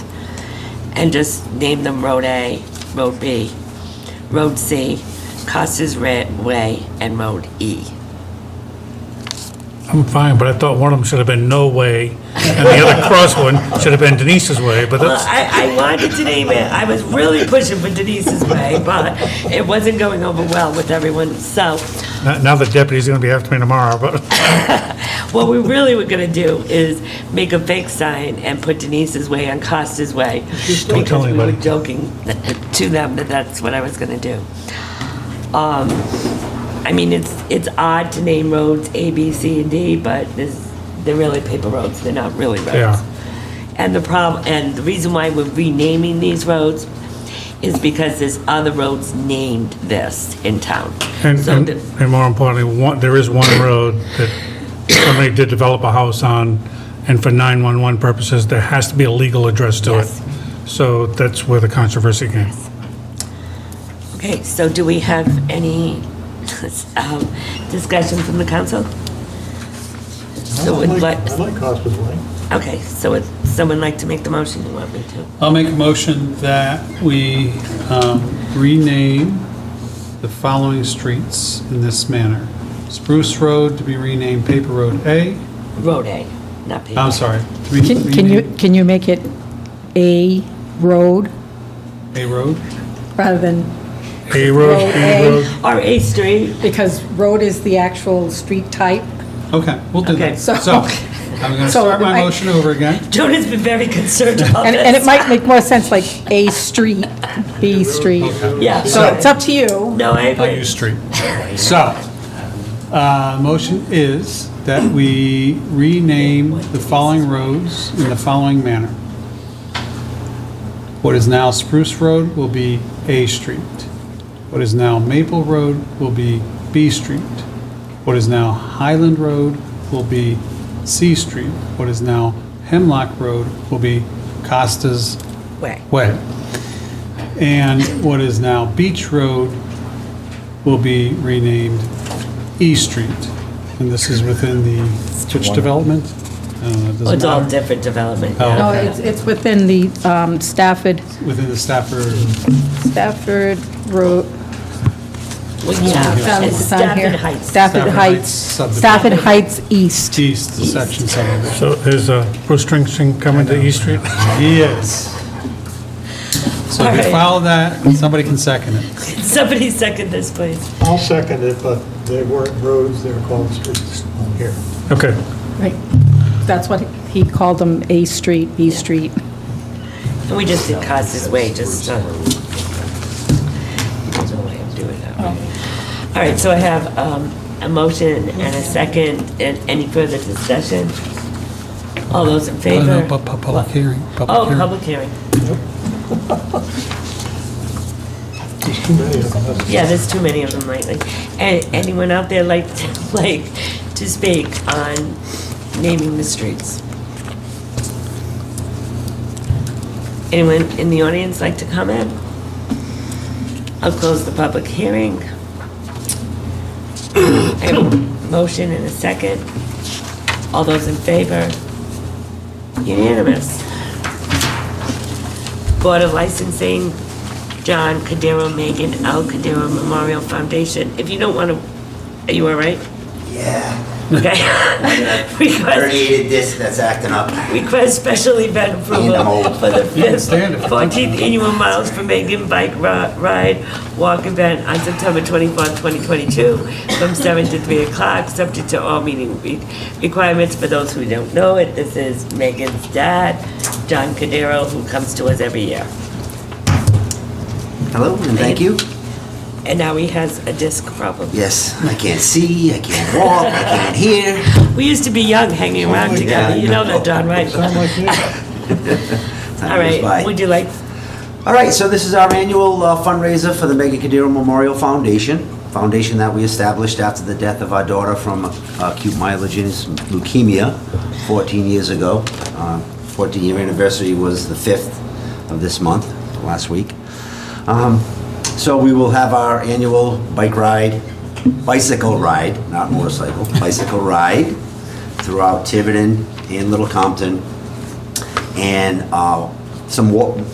and just name them Road A, Road B, Road C, Costas Ra- Way, and Road E. I'm fine, but I thought one of them should have been No Way, and the other cross one should have been Denise's Way, but Well, that's, I, I wanted to name it, I was really pushing for Denise's Way, but it wasn't going over well with everyone, so now- now the deputy's gonna be after me tomorrow, but, What we really were gonna do is make a fake sign and put Denise's way on Costa's way. Don't tell because we were anybody. Joking to them that that's what I was gonna do. Um, I mean, it's, it's odd to name roads A, B, C, and D, but this, they're really paper roads, they're not really roads. They are. And the problem, and the reason why we're renaming these roads is because there's other roads named this in town. and, So and the- and more importantly, one, there is one road that somebody did develop a house on, and for 911 purposes, there has to be a legal address to it. Yes. So that's where the controversy came. Okay, so do we have any um, discussion from the council? So would like, I like Hospice Lane. okay, so would someone like to make the motion you want me to? I'll make a motion that we um, rename the following streets in this manner. Spruce Road to be renamed Paper Road A. Road A, not P. I'm sorry. to be Can can you, renamed can you make it a road A Road. rather than, A road, Road B A. road, Or A Street, because road is the actual street type? Okay, we'll do Okay. that. So- So I'm going to So start my I- motion over again. Joan has been very concerned about And, and it this. might make more sense like A street, B street. Yeah, So it's so, up to you. no, I I'll use agree. street. So, uh, motion is that we rename the following roads in the following manner. What is now Spruce Road will be A Street. What is now Maple Road will be B Street. What is now Highland Road will be C Street. What is now Hemlock Road will be Costa's Way. Way. And what is now Beach Road will be renamed E Street. And this is within the, which development? Uh, I don't know, it Oh, It's doesn't all matter. different development. Oh. No, yeah. it's, it's within the um, Stafford, Within the Stafford, Stafford Road, Well, Yeah, it's it's on Stafford here. Heights. Stafford Stafford Heights, Heights subdivision. Stafford Heights East. East, the section subdivision. so there's a Bruce Stringsteen coming to East Street. Yes. So if you Alright. follow that, somebody can second it. Somebody second this, please. I'll second it, but they weren't roads, they were called streets on here. Okay, Right. That's what he called them, A street, B street. And we just did Costa's Way, just, uh, there's no way of doing that. All right, so I have um, a motion and a second, and any further discussion? All those in Oh, favor? no, pu- pu- Public hearing, public Oh, hearing. public hearing. There's too many of them. Yeah, there's too many of them lately. And anyone out there like, like to speak on naming the streets? Anyone in the audience like to comment? I'll close the public hearing. I have a Motion and a second. All those in favor? Unanimous. Board of Licensing, John Cadero, Megan L. Cadero Memorial Foundation. If you don't want to, are you all right? Yeah, Okay. Request, herniated disc that's acting up. request special event I'm approval old. for the fifth, stand it. 14th annual Miles for Megan Bike Ri- Ride Walk Event on September 24th, 2022, from 7 to 3 o'clock, subject to all meeting re- requirements. For those who don't know it, this is Megan's dad, John Cadero, who comes to us every year. Hello, and thank you. And now he has a disc problem. Yes, I can't see, I can't walk, I can't hear. We used to be young, hanging Oh, around together. You know that, Don, right? Sound like me? Time All goes by. right, would you like, All right, so this is our annual uh, fundraiser for the Megan Cudero Memorial Foundation, foundation that we established after the death of our daughter from uh, acute myelogenous leukemia 14 years ago. 14-year anniversary was the 5th of this month, last week. Um, So we will have our annual bike ride, bicycle ride, not motorcycle, bicycle ride throughout Tiverton and Little Compton, and uh, some wa-